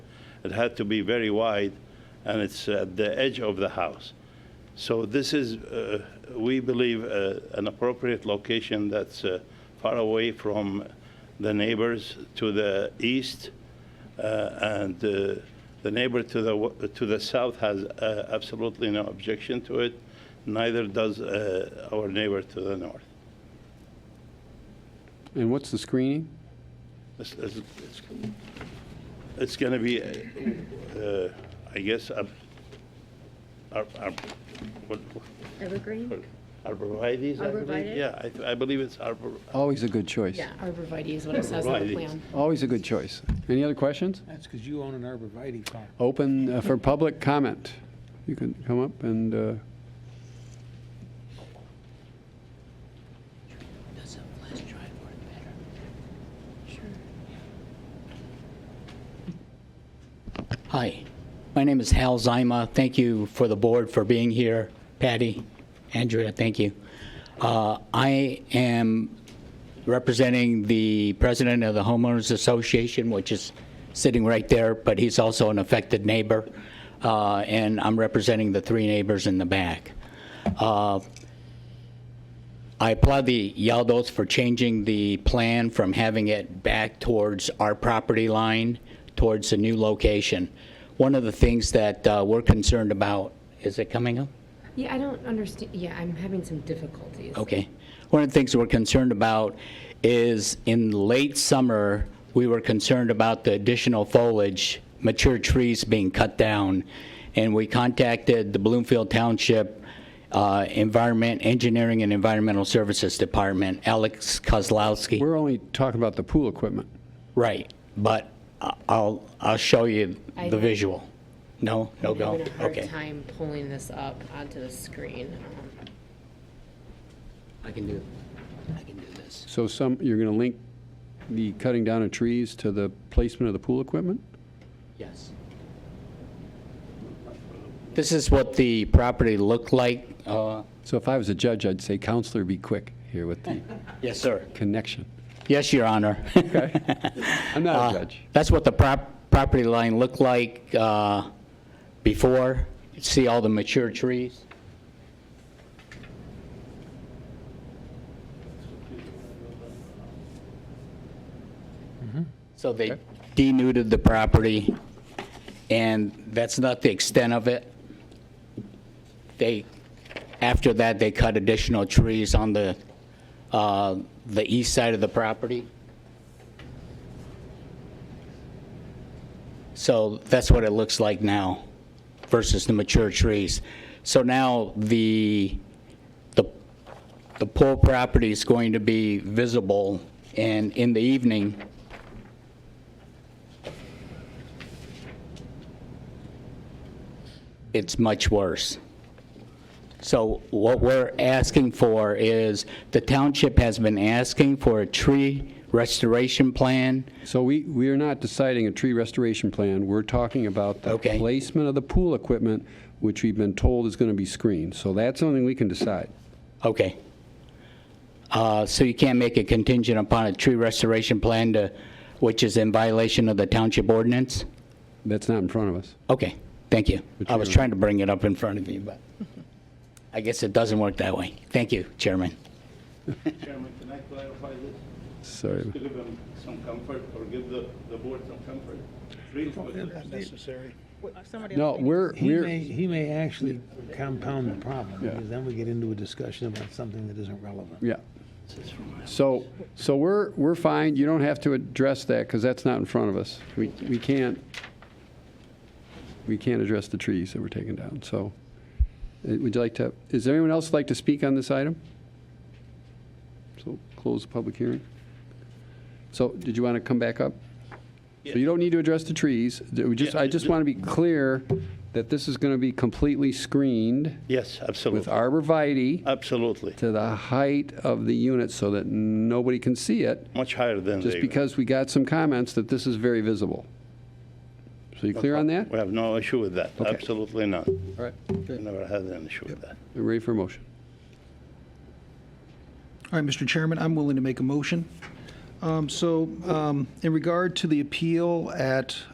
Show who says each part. Speaker 1: It had to be very wide, and it's at the edge of the house. So this is, uh, we believe, uh, an appropriate location that's uh, far away from the neighbors to the east, uh, and uh, the neighbor to the, w- to the south has uh, absolutely no objection to it, neither does uh, our neighbor to the north.
Speaker 2: And what's the screening?
Speaker 1: It's, it's, it's- it's gonna be, uh, I guess, ar- ar- ar- what, what-
Speaker 3: Evergreen?
Speaker 1: arborvitae's, I believe?
Speaker 3: Arborvitae?
Speaker 1: Yeah, I, th- I believe it's arbor,
Speaker 2: Always a good choice.
Speaker 3: Yeah, arborvitae is what it says on the
Speaker 1: Arborvitae.
Speaker 3: plan.
Speaker 2: Always a good choice. Any other questions?
Speaker 4: That's because you own an arborvitae farm.
Speaker 2: Open uh, for public comment. You can come up and, uh,
Speaker 5: Hi, my name is Hal Zima. Thank you for the board for being here. Patty, Andrea, thank you. Uh, I am representing the president of the homeowners association, which is sitting right there, but he's also an affected neighbor, uh, and I'm representing the three neighbors in the back. Uh, I applaud the Yaldos for changing the plan from having it back towards our property line, towards the new location. One of the things that uh, we're concerned about, is it coming up?
Speaker 3: Yeah, I don't understand, yeah, I'm having some difficulties.
Speaker 5: Okay. One of the things we're concerned about is in late summer, we were concerned about the additional foliage, mature trees being cut down. And we contacted the Bloomfield Township uh, Environment, Engineering and Environmental Services Department, Alex Kozlowski.
Speaker 2: we're only talking about the pool equipment.
Speaker 5: Right, but I- I'll, I'll show you
Speaker 3: I
Speaker 5: the
Speaker 3: know.
Speaker 5: visual. No, no
Speaker 3: I'm
Speaker 5: go,
Speaker 3: having a hard
Speaker 5: okay.
Speaker 3: time pulling this up onto the screen. Um,
Speaker 5: I can do, I can do this.
Speaker 2: So some, you're going to link the cutting down of trees to the placement of the pool equipment?
Speaker 5: Yes. This is what the property looked like. uh,
Speaker 2: So if I was a judge, I'd say, counselor, be quick here with the
Speaker 5: Yes, sir.
Speaker 2: connection.
Speaker 5: Yes, Your Honor.
Speaker 2: I'm not a
Speaker 5: Uh,
Speaker 2: judge.
Speaker 5: That's what the prop- property line looked like uh, before. See all the mature trees? So they denuded the property, and that's not the extent of it. They, after that, they cut additional trees on the, uh, the east side of the property. So that's what it looks like now versus the mature trees. So now the, the, the pool property is going to be visible and in the evening. It's much worse. So what we're asking for is, the township has been asking for a tree restoration plan.
Speaker 2: So we, we are not deciding a tree restoration plan. We're talking about the
Speaker 5: Okay.
Speaker 2: placement of the pool equipment, which we've been told is going to be screened. So that's something we can decide.
Speaker 5: Okay. Uh, So you can't make a contingent upon a tree restoration plan to, which is in violation of the township ordinance?
Speaker 2: That's not in front of us.
Speaker 5: Okay, thank you. I was
Speaker 2: Chairman.
Speaker 5: trying to bring it up in front of you, but I guess it doesn't work that way. Thank you, Chairman.
Speaker 1: Chairman, can I clarify this?
Speaker 2: Sorry.
Speaker 1: To give them some comfort, or give the, the board some comfort? Real comfort.
Speaker 4: necessary.
Speaker 2: No, we're,
Speaker 4: Oh, He may,
Speaker 2: we're,
Speaker 4: he may actually compound the problem,
Speaker 2: Yeah.
Speaker 4: because then we get into a discussion about something that isn't relevant.
Speaker 2: yeah. So, so we're, we're fine. You don't have to address that because that's not in front of us. We, we can't, we can't address the trees that were taken down. So uh, would you like to, is there anyone else like to speak on this item? So close the public hearing. So did you want to come back up? So you don't need to address the trees. Do we just- I just want to be clear that this is going to be completely screened
Speaker 1: Yes,
Speaker 2: with
Speaker 1: absolutely,
Speaker 2: arborvitae
Speaker 1: absolutely,
Speaker 2: to the height of the unit so that nobody can see it,
Speaker 1: much higher than they.
Speaker 2: just because we got some comments that this is very visible. So you clear on that?
Speaker 1: We have no issue with that,
Speaker 2: Okay.
Speaker 1: absolutely not.
Speaker 2: All right,
Speaker 1: We Never had an issue with that.
Speaker 2: we're ready for a motion.
Speaker 6: All right, Mr. Chairman, I'm willing to make a motion. Um, So um, in regard to the appeal at